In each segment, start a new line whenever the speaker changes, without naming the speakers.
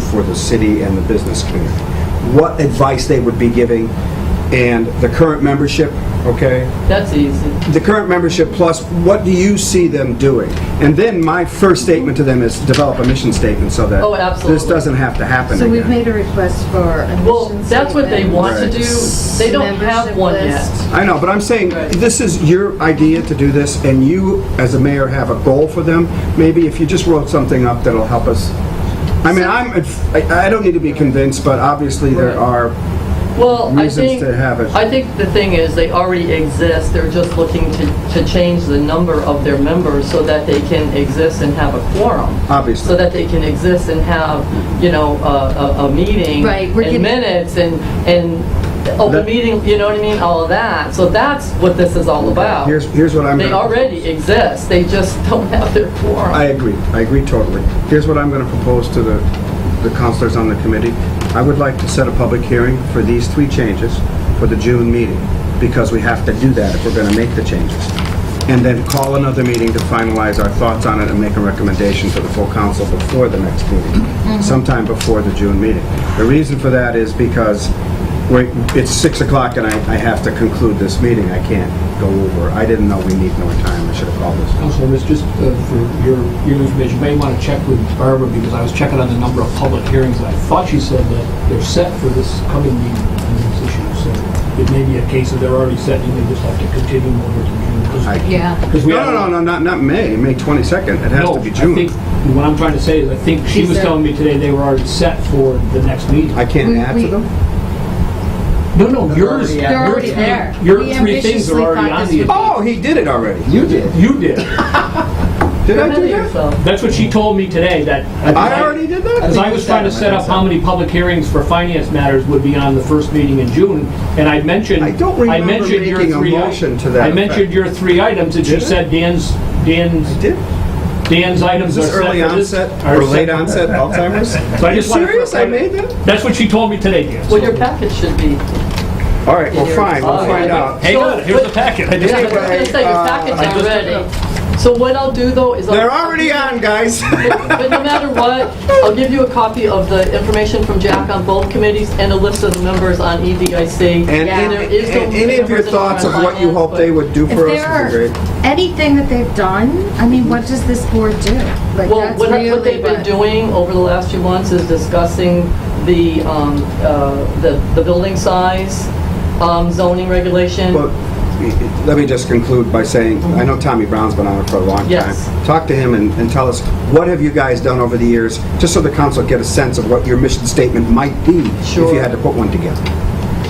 for the city and the business community, what advice they would be giving, and the current membership, okay?
That's easy.
the current membership plus, what do you see them doing? And then my first statement to them is develop a mission statement so that
Oh, absolutely.
this doesn't have to happen
So we've
again.
made a request for a
Well,
mission
that's what they
statement.
want to
Right.
do. They don't have
Membership
one
list.
yet.
I know, but I'm saying,
Right.
this is your idea to do this, and you, as a mayor, have a goal for them. Maybe if you just wrote something up that'll help us. I mean, I'm, I I don't need to be convinced, but obviously there
Right.
are,
Well, I
Reasons
think,
to have it.
I think the thing is, they already exist. They're just looking to, to change the number of their members so that they can exist and have a quorum.
Obviously.
So that they can exist and have, you know, a, a, a meeting.
Right, we're
And
giving-
minutes and, and open
That-
meeting, you know what I mean, all of that. So that's what this is all about.
here's, here's what I'm going to...
They already exist. They just don't have their quorum.
I agree, I agree totally. Here's what I'm going to propose to the, the counselors on the committee. I would like to set a public hearing for these three changes for the June meeting, because we have to do that if we're going to make the changes. And then call another meeting to finalize our thoughts on it and make a recommendation to the full council before the next meeting, sometime before the June meeting. The reason for that is because we it's 6 o'clock and I, I have to conclude this meeting, I can't go over. I didn't know we need more time, I should have called this.
Counselor, it's just uh, for your, your information, you may want to check with Barbara, because I was checking on the number of public hearings, and I thought she said that they're set for this coming meeting on these issues, so it may be a case that they're already set, and they just have to continue them over to June. 'cause-
I-
Yeah.
'cause we
No,
have-
no, no, no, not, not May, May 22nd, it has
No,
to be
I
June.
think- What I'm trying to say is, I think she
She
was
said-
telling me today they were already set for the next meeting.
I can't
We-
add to
we-
them?
No, no, yours,
They're
your
already
three,
there.
your
We
three things
ambitiously
are already
thought
on
this
the
would be-
agenda.
Oh, he did it already.
You did. You did.
Did I
Remember
do that?
yourself.
That's what she told me today, that.
I already did
Because
that?
I was trying to set up how many public hearings for finance matters would be on the first meeting in June, and I mentioned.
I don't remember
mentioned your
making a
three i-
motion to that
I mentioned
effect.
your three items, and she
Did I?
said Dan's, Dan's,
Did?
Dan's items
Is
are
this
set for
early
this-
onset
are
or
set
late
for-
onset Alzheimer's?
So I just wanted to-
serious? I made that?
That's what she told me today, Dan.
Well, your package should be.
All right, well, fine, we'll
Okay.
find out.
Hang on, here's the packet. I just-
Yeah, I was gonna say,
uh,
your packets
I
are
just-
ready. So what I'll do though is. I'll-
They're already on, guys.
But no matter what, I'll give you a copy of the information from Jack on both committees and a list of the members on E EDIC.
And
Yeah.
any-
There is no
and any of your
members in
thoughts of what you
finance,
hope
but-
they would do
If
for
there
us
are
would be great.
anything that they've done, I mean, what does this board do? Like,
Well,
that's
what I-
really
what they've been
what-
doing over the last few months is discussing the, um, uh, the the building size, um, zoning regulation.
Well, let me just conclude by saying, I know Tommy Brown's been on it for a long time.
Mm-hmm. Yes.
Talk to him and, and tell us, what have you guys done over the years, just so the council get a sense of what your mission statement might be if you
Sure.
had to put one together.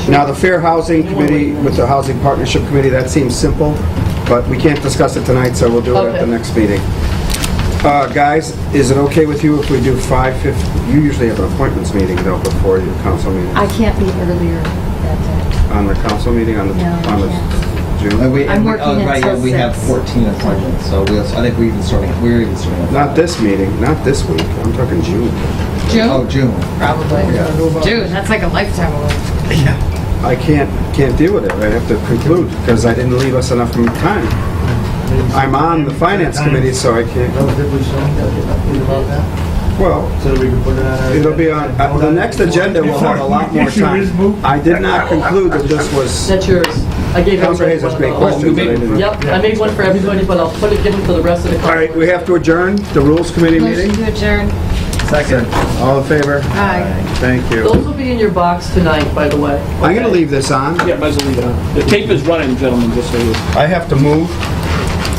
Now, the Fair Housing
You want
Committee
one?
with the Housing Partnership Committee, that seems simple, but we can't discuss it tonight, so we'll do it at the
Okay.
next meeting. Uh, guys, is it okay with you if we do 5:50? You usually have an appointments meeting though before your council meeting,
I can't be earlier that day.
on the council meeting on the,
No, I
on the June?
And we-
I'm
and we-
working
oh, right,
until
yeah, We have
six.
14 appointments, so we also, I think we even starting, we're even starting.
Not this meeting, not this week, I'm talking June.
Oh, June.
Probably.
Yeah.
June, that's like a lifetime away.
I can't, can't deal with it, I have to conclude, because I didn't leave us enough time. I'm on the finance committee, so I can't,
relatively soon, about that,
well,
so that we can put it on our...
it'll be on, uh, the next agenda will have a lot more time. I did not conclude that this was,
That's yours. I gave
Counselor
everybody
Hayes has
one
great
of those.
questions that I didn't.
Yep, I made one for everybody, but I'll put it, give it to the rest of the
All
council.
right, we have to adjourn the rules committee
Motion
meeting?
to adjourn.
Second.
All in favor?
Aye.
Thank
Those
you.
will be in your box tonight, by the way.
I'm gonna leave this on,
Yeah, might as well leave it on. The tape is running, gentlemen, just so you.
I have to move.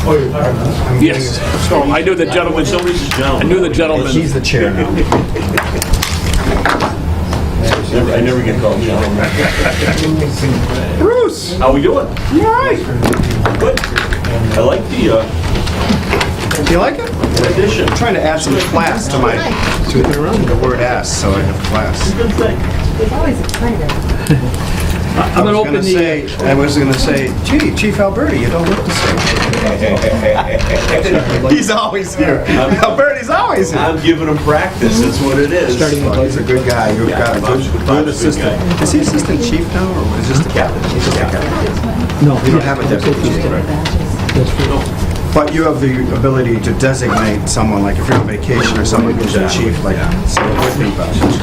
Oh, you're tired, Yes. So I knew the gentleman, I knew the gentleman.
He's the chair now.
I never get called gentleman.
Bruce,
How we doing?
you all right?
Good. I like the uh,
Do you like it?
addition.
I'm trying to add some class to my, to the word "ass," so I have class.
Good thing.
It's always exciting.
I'm gonna open the...
uh,
I was gonna say, gee, Chief Alberti, you don't look the same. He's always here. Alberti's always here.
I'm giving him practice, that's what it is.
He's a good guy. You've got a
Bob's-
good, good
Bob's a good
assistant. Is he assistant chief now, or is this the captain? He's just the captain.
No,
You don't have a deputy chief, right? But you have the ability to designate someone, like if you're on vacation or someone who's the chief, like, so it would be better.